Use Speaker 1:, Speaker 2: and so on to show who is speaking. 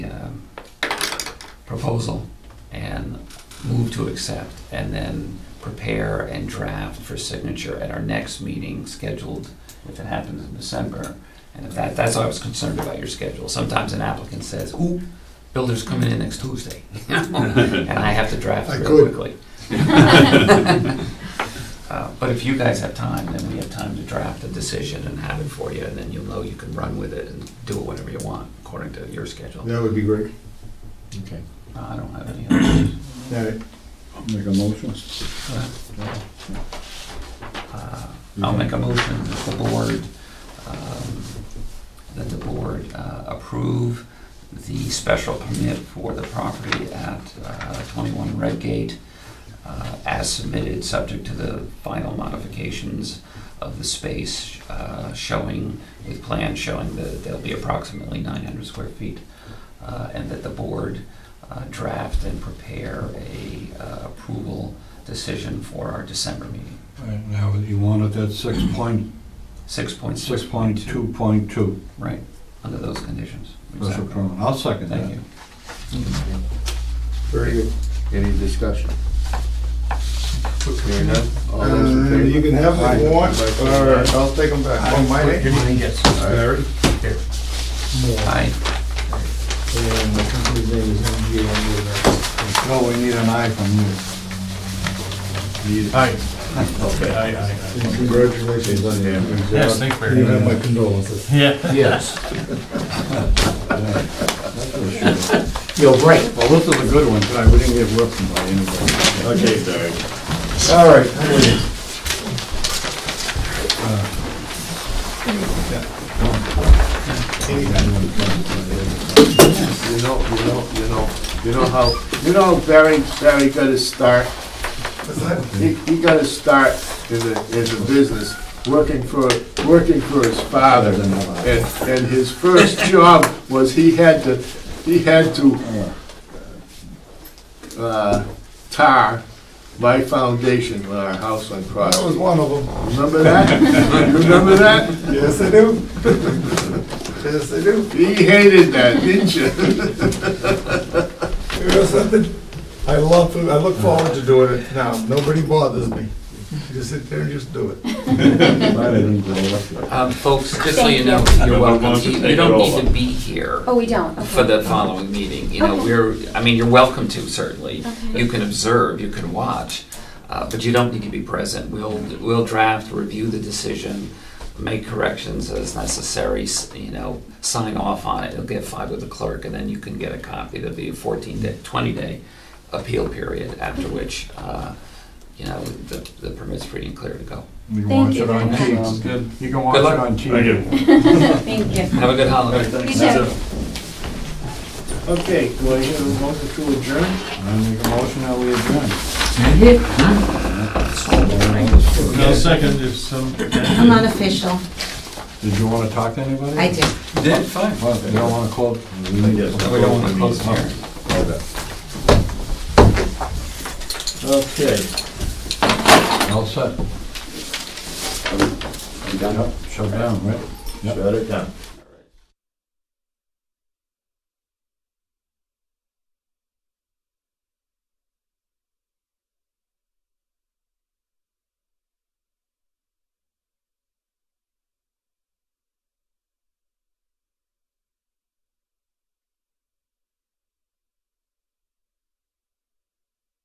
Speaker 1: uh, proposal and move to accept, and then prepare and draft for signature at our next meeting scheduled, if it happens in December. And if that, that's why I was concerned about your schedule. Sometimes an applicant says, ooh, builder's coming in next Tuesday, and I have to draft
Speaker 2: I
Speaker 1: real
Speaker 2: could.
Speaker 1: quickly. Uh, But if you guys have time, then we have time to draft a decision and have it for you, and then you'll know you can run with it and do it whenever you want, according to your schedule.
Speaker 2: That would be great.
Speaker 3: Okay.
Speaker 1: I don't have any other.
Speaker 2: All right.
Speaker 3: Make a motion.
Speaker 1: Uh, I'll make a motion that the board, um, that the board uh, approve the special permit for the property at uh, 21 Redgate uh, as submitted, subject to the final modifications of the space uh, showing, with plans showing that there'll be approximately 900 square feet, uh, and that the board uh, draft and prepare a uh, approval decision for our December meeting.
Speaker 3: And now you want it at six point,
Speaker 1: Six point
Speaker 3: six point two point two,
Speaker 1: Right, under those conditions.
Speaker 3: special
Speaker 1: Exactly.
Speaker 3: permit. I'll second that.
Speaker 1: Thank you.
Speaker 2: Very good.
Speaker 4: Any discussion? Hearing none? All those in
Speaker 2: Uh,
Speaker 4: favor?
Speaker 2: You can have what you want, or I'll take them back. Oh, my name? Barry.
Speaker 1: Aye.
Speaker 2: And the company's name is MGM.
Speaker 3: No, we need an eye from
Speaker 5: Aye. Okay, aye, aye, aye.
Speaker 2: And Congratulations on your
Speaker 5: Yes,
Speaker 2: exam.
Speaker 5: thanks,
Speaker 2: You have
Speaker 5: Barry.
Speaker 2: my condolences.
Speaker 5: Yeah.
Speaker 4: Yes.
Speaker 3: you.
Speaker 2: You're right.
Speaker 3: Well, this is a good one, tonight. we didn't get whipped by anybody.
Speaker 5: Okay, Barry.
Speaker 2: All right.
Speaker 3: Uh,
Speaker 4: You know, you know, you know, you know how, you know how Barry, Barry got his start? He, he got his start in the, in the business, working for, working for his father. And, and his first job was he had to, he had to, uh, tar my foundation when our house went
Speaker 2: That was
Speaker 4: cross.
Speaker 2: one of them.
Speaker 4: Remember that? You Remember that?
Speaker 2: Yes, I do. Yes, I do.
Speaker 4: He hated that, didn't you?
Speaker 2: You know something? I love, I look forward to doing it now. Nobody bothers me. Just sit there and just do it.
Speaker 3: Glad I didn't get elected.
Speaker 1: Um, folks, just so you know,
Speaker 6: Thank
Speaker 5: you.
Speaker 1: you're welcome.
Speaker 5: Everyone
Speaker 1: You
Speaker 5: wants to
Speaker 1: you don't
Speaker 5: take it
Speaker 1: need to
Speaker 5: over.
Speaker 1: be here
Speaker 6: Oh, we don't? Okay.
Speaker 1: for the following meeting. You know,
Speaker 6: Okay.
Speaker 1: we're, I mean, you're welcome to certainly.
Speaker 6: Okay.
Speaker 1: You can observe, you can watch, uh, but you don't need to be present. We'll, we'll draft, review the decision, make corrections as necessary, s- you know, sign off on it. It'll get filed with the clerk and then you can get a copy. There'll be a 14 day, 20 day appeal period after which, uh, you know, the, the permit's free and clear to go.
Speaker 3: You can
Speaker 6: Thank
Speaker 3: watch
Speaker 6: you
Speaker 3: it on
Speaker 6: very
Speaker 3: TV.
Speaker 6: much.
Speaker 3: You can watch it
Speaker 1: luck.
Speaker 3: on TV.
Speaker 5: Thank you.
Speaker 6: Thank you.
Speaker 1: Have a good holiday.
Speaker 6: You too.
Speaker 4: Okay, do I hear a motion to adjourn?
Speaker 3: I make a motion that we adjourn.
Speaker 5: Now, second, if some,
Speaker 7: I'm unofficial.
Speaker 3: Did you want to talk to anybody?
Speaker 7: I do.
Speaker 1: Did, fine.
Speaker 3: Well, if you don't want to close.
Speaker 1: We don't want to close the hearing.
Speaker 4: Okay.
Speaker 3: All set. Yep, Shut down, right?
Speaker 4: Shut it down.